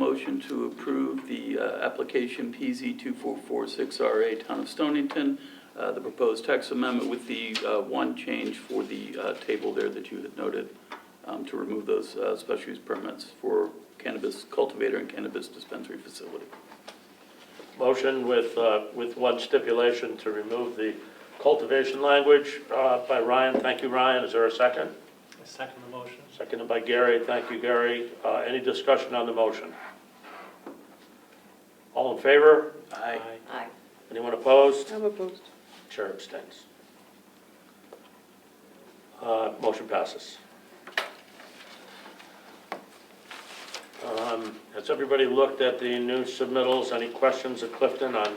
Motion to approve the uh, application PZ 2446RA, Town of Stonington, uh, the proposed text amendment with the uh, one change for the uh, table there that you had noted, um, to remove those uh, special use permits for cannabis cultivator and cannabis dispensary facility. Motion with, uh, with one stipulation to remove the cultivation language uh, by Ryan. Thank you, Ryan. Is there a second? I second the motion. Seconded by Gary. Thank you, Gary. Uh, Any discussion on the motion? All in favor? Aye. Aye. Anyone opposed? I'm opposed. Chair abstains. Uh, Motion passes. Um, Has everybody looked at the new submittals? Any questions at Clifton on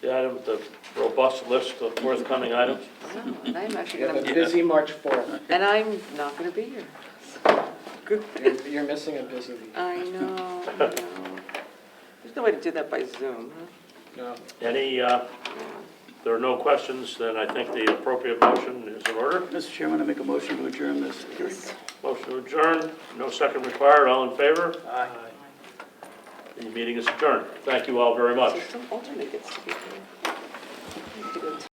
the item, the robust list of forthcoming items? No, and I'm actually You have a gonna, busy March 4th. and I'm not gonna be here. You're- You're missing a busy week. I know, I know. There's no way to do that by Zoom, huh? No. Any, uh, there are no questions, then I think the appropriate motion is in order. Mr. Chairman, I make a motion to adjourn this hearing. Motion to adjourn. no second required, all in favor? Aye. The meeting is adjourned. Thank you all very much. So some alternate gets to be here. I have to go